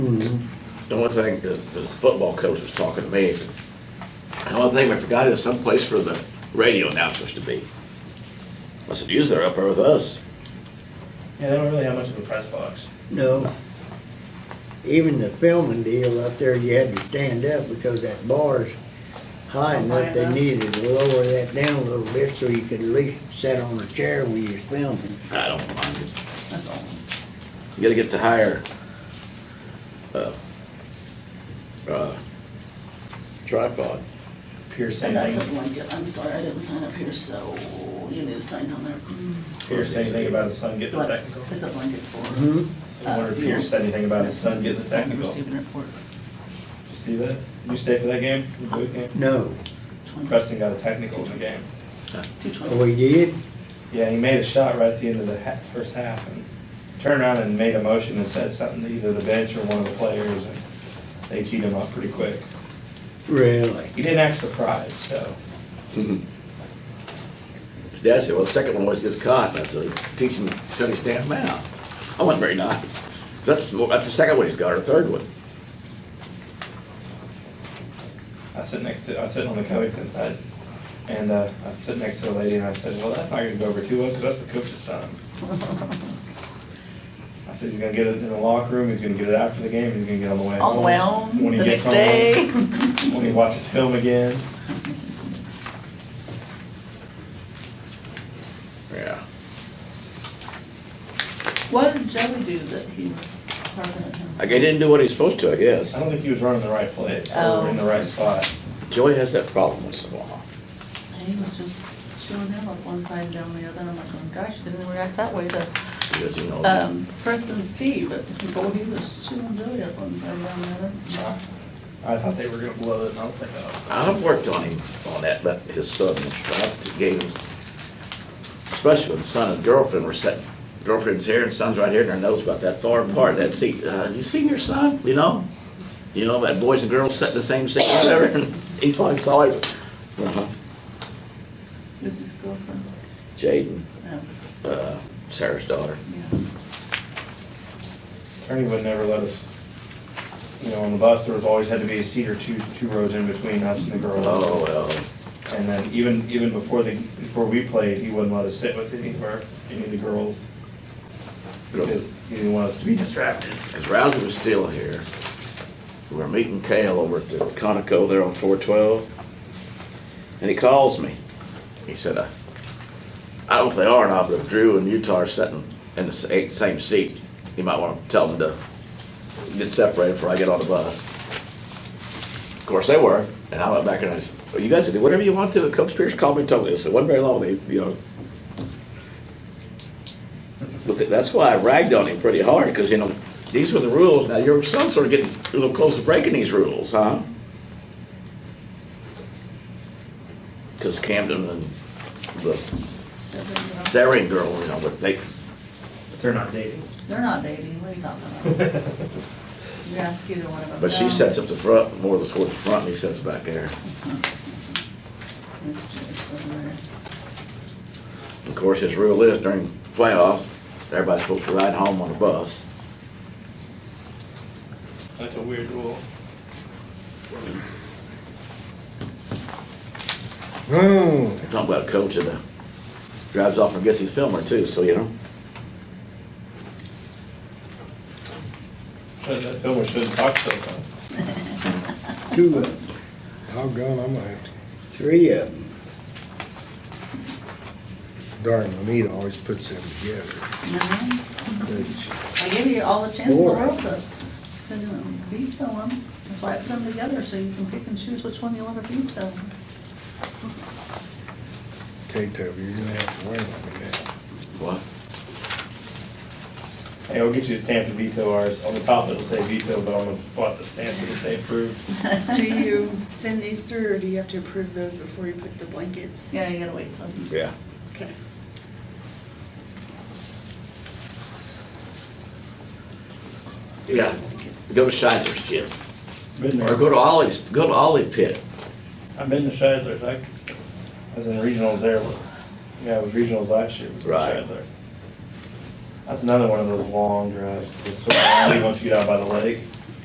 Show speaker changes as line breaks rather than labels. the only thing the, the football coach was talking to me, he said, the only thing we forgot is someplace for the radio announcers to be. I said, use they're up there with us.
Yeah, they don't really have much of a press box.
No. Even the filming deal up there, you had to stand up because that bar's Oh, high enough, they needed to lower that down a little bit so you could at least sit on a chair when you're filming.
I don't mind it.
That's all.
You gotta get to higher, uh, uh, tripod.
Pierce
And that's a
anything,
blanket, I'm sorry, I didn't sign up here, so you need to sign on there.
Pierce anything about his son getting a
But
technical.
it's a blanket for.
Mm-hmm.
I wonder if Pierce said anything about his son getting a technical. Did
Receiving report,
you see that? You stay for that game, the boys game?
No.
twenty,
Preston got a technical in the game.
two twenty.
Oh, he did?
Yeah, he made a shot right at the end of the ha- first half and turned around and made a motion and said something to either the bench or one of the players and they teed him up pretty quick.
Really?
He didn't act surprised, so.
His dad said, well, the second one always gets caught, and I said, teach him, set his damn mouth. I wasn't very nice. That's, more- that's the second one he's got, or the third one.
I sit next to, I sit on the Covington side, and uh, I sit next to a lady, and I said, "Well, that's not going to go over too well, because that's the coach's son." I said, "He's going to get it in the locker room. He's going to get it after the game. He's going to get on the way
On the way
home,
home,
when he
the
gets
next
home,
day.
when he watches film again."
Yeah.
What did Joey do that he was part of it himself?
Like, he didn't do what he was supposed to, I
I
guess.
don't think he was running the right place or
Oh.
in the right spot.
Joey has that problem once in a while.
He was just showing up on one side and down the other, and I'm like, oh gosh, didn't react that way to,
Because, you know,
um, Preston's tea, but boy, he was chewing Joey up one side and down the other.
I, I thought they were going to blow it, and I was like, "Oh."
I've worked on him on that, but his son, I gave him, especially when son and girlfriend were sitting, girlfriend's here and son's right here, and their nose about that far apart, that seat. Uh, you seen your son? You know, you know that boys and girls sitting the same seat, whatever. And he finally saw him. Uh-huh.
Who's his girlfriend?
Jaden,
Yeah,
uh, Sarah's daughter.
yeah.
Attorney would never let us, you know, on the bus, there was always had to be a seat or two, two rows in between us and the girls.
Oh well,
And then even, even before the, before we played, he wouldn't let us sit with any of our, any of the girls. Because he didn't want us to be distracted.
because Rousey was still here. We were meeting Kale over at the Conoco there on four twelve, and he calls me. He said, uh, "I don't know if they are or not, but if Drew and Utah are sitting in the sa- same seat, you might want to tell them to get separated before I get on the bus." Of course, they were, and I went back and I said, well, "You guys can do whatever you want to." Coach Pierce called me and told me this. It wasn't very long. They, you know. But th- that's why I ragged on him pretty hard, because, you know, these were the rules. Now, your son's sort of getting a little close to breaking these rules, huh? Because Camden and the Sarah girl, you know, but they,
But they're not dating.
They're not dating, what are you talking about? You ask either one of them.
but she
No.
sets up the front, more toward the front, and he sets back there.
It's just somewhere.
Of course, his rule is during playoffs, everybody's supposed to ride home on a bus.
That's a weird rule.
They're talking about a coach that uh, drives off and gets his filmer too, so, you know.
Shouldn't, that filmer shouldn't talk so much.
Two of them,
Doggone, I'm gonna have to,
three of them.
darn, Anita always puts them together.
No,
doesn't she?
I give you all the chance in the
Four.
world to, to veto them. That's why I put them together, so you can pick and choose which one you want to veto.
Okay, Toby, you're gonna have to wait on me now.
What?
Hey, I'll get you a stamp to veto ours. On the top it'll say veto, but on the bottom the stamp it'll say approved.
Do you send these through, or do you have to approve those before you put the blankets?
Yeah, you gotta wait till. you-
Yeah.
Okay.
Yeah. Go to Shidler's, Jim.
Been
Or
there.
go to Ollie's, go to Ollie Pit.
I've been to Shidler's. I, I was in regionals there. Yeah, I was regionals last year. was in
Right.
Shidler. That's another one of those long drives. It's sort of, you want to get out by the lake.